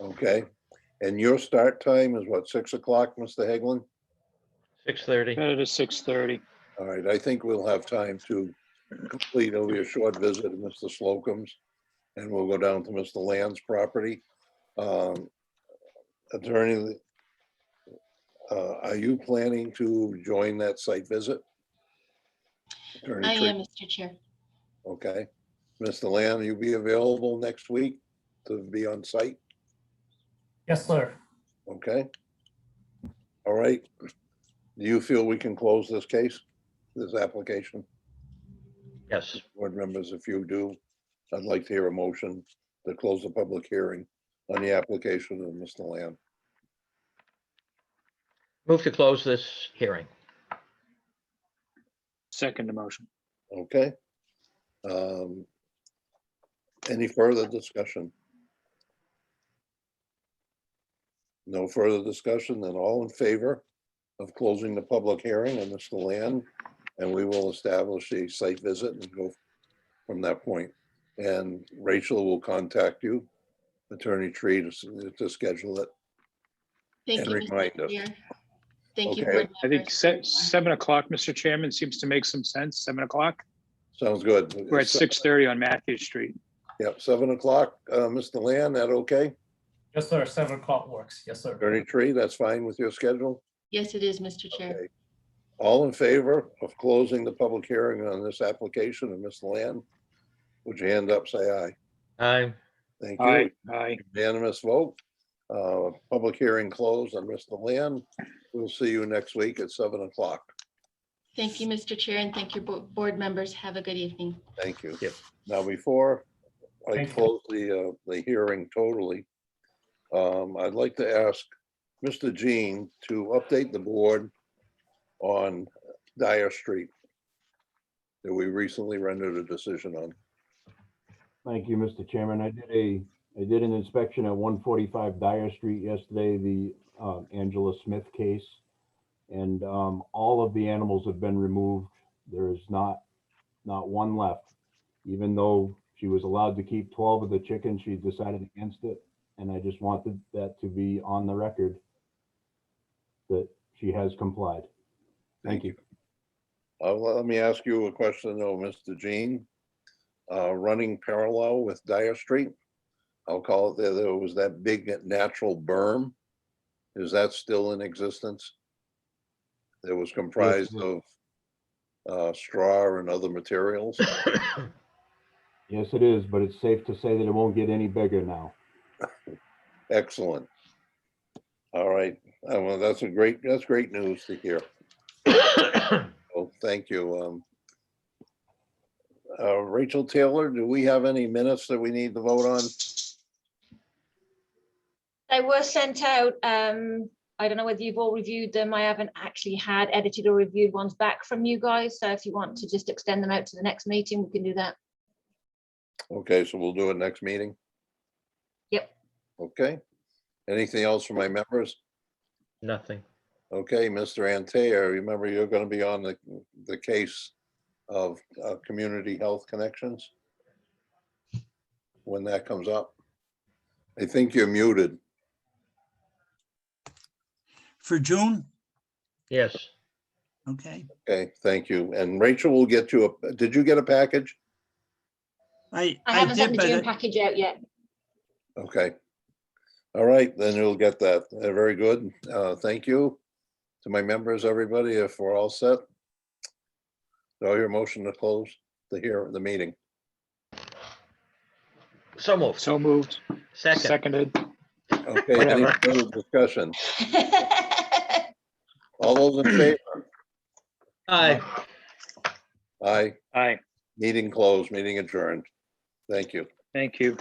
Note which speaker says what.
Speaker 1: Okay, and your start time is what, six o'clock, Mr. Haglund?
Speaker 2: Six thirty.
Speaker 3: Got it at six thirty.
Speaker 1: All right, I think we'll have time to complete only a short visit of Mr. Slocum's, and we'll go down to Mr. Land's property. Um, Attorney, uh, are you planning to join that site visit? Attorney
Speaker 4: I
Speaker 1: Tree-
Speaker 4: am, Mr. Chair.
Speaker 1: Okay, Mr. Land, you be available next week to be on site?
Speaker 5: Yes, sir.
Speaker 1: Okay. All right. Do you feel we can close this case, this application?
Speaker 2: Yes,
Speaker 1: Board members, if you do, I'd like to hear a motion to close the public hearing on the application of Mr. Lamb.
Speaker 2: move to close this hearing.
Speaker 3: Second motion.
Speaker 1: Okay? Um, Any further discussion? No further discussion, then all in favor of closing the public hearing on Mr. Land? And we will establish a site visit and go from that point. And Rachel will contact you, Attorney Tree, to, s- to schedule it.
Speaker 4: Thank
Speaker 1: And
Speaker 4: you,
Speaker 1: remind
Speaker 4: Mr.
Speaker 1: us.
Speaker 4: Chair. Thank you.
Speaker 1: Okay.
Speaker 4: board
Speaker 3: I think
Speaker 4: members.
Speaker 3: se- seven o'clock, Mr. Chairman, seems to make some sense. Seven o'clock.
Speaker 1: Sounds good.
Speaker 3: We're at six thirty on Matthew Street.
Speaker 1: Yep, seven o'clock, uh, Mr. Land, that okay?
Speaker 5: Yes, sir. Seven o'clock works. Yes, sir.
Speaker 1: Attorney Tree, that's fine with your schedule?
Speaker 4: Yes, it is, Mr. Chair.
Speaker 1: Okay. All in favor of closing the public hearing on this application of Ms. Land? Would you hand up, say aye?
Speaker 2: Aye,
Speaker 1: Thank you.
Speaker 3: Aye, aye.
Speaker 1: Unanimous vote. Uh, Public hearing closed on Mr. Land. We'll see you next week at seven o'clock.
Speaker 4: Thank you, Mr. Chair, and thank your bo- board members. Have a good evening.
Speaker 1: Thank you.
Speaker 2: Yep.
Speaker 1: Now, before I
Speaker 5: Thank you.
Speaker 1: close the, uh, the hearing totally, um, I'd like to ask Mr. Jean to update the board on Dyer Street that we recently rendered a decision on.
Speaker 6: Thank you, Mr. Chairman. I did a, I did an inspection at one forty-five Dyer Street yesterday, the uh, Angela Smith case. And um, all of the animals have been removed. There is not, not one left. Even though she was allowed to keep twelve of the chickens, she decided against it. And I just wanted that to be on the record that she has complied. Thank you.
Speaker 1: Uh, well, let me ask you a question though, Mr. Jean. Uh, running parallel with Dyer Street, I'll call it, there, there was that big natural berm. Is that still in existence? That was comprised
Speaker 6: it-
Speaker 1: of uh, straw and other materials?
Speaker 6: Yes, it is, but it's safe to say that it won't get any bigger now.
Speaker 1: Excellent. All right, Uh, well, that's a great, that's great news to hear. Well, thank you. um, uh, Rachel Taylor, do we have any minutes that we need to vote on?
Speaker 7: They were sent out. Um, I don't know whether you've all reviewed them. I haven't actually had edited or reviewed ones back from you guys. So if you want to just extend them out to the next meeting, we can do that.
Speaker 1: Okay, so we'll do it next meeting?
Speaker 7: Yep.
Speaker 1: Okay. Anything else for my members?
Speaker 2: nothing.
Speaker 1: Okay, Mr. Antaya, remember you're going to be on the, the case of uh, Community Health Connections? When that comes up? I think you're muted.
Speaker 8: For June?
Speaker 2: Yes,
Speaker 8: Okay.
Speaker 1: Okay, thank you. And Rachel will get you a, did you get a package?
Speaker 8: I,
Speaker 7: I
Speaker 8: I
Speaker 7: haven't sent
Speaker 8: did,
Speaker 7: the
Speaker 8: but
Speaker 7: June
Speaker 8: it-
Speaker 7: package out yet.
Speaker 1: Okay. All right, then you'll get that. Uh, Very good. Uh, Thank you to my members, everybody, if we're all set. So your motion to close the hear, the meeting.
Speaker 2: so moved.
Speaker 3: So moved.
Speaker 2: Second,
Speaker 3: Seconded.
Speaker 1: Okay, any
Speaker 2: Whatever.
Speaker 1: further discussion? All those in favor?
Speaker 2: aye.
Speaker 1: Aye,
Speaker 3: Aye,
Speaker 1: meeting closed, meeting adjourned. Thank you.
Speaker 3: thank you.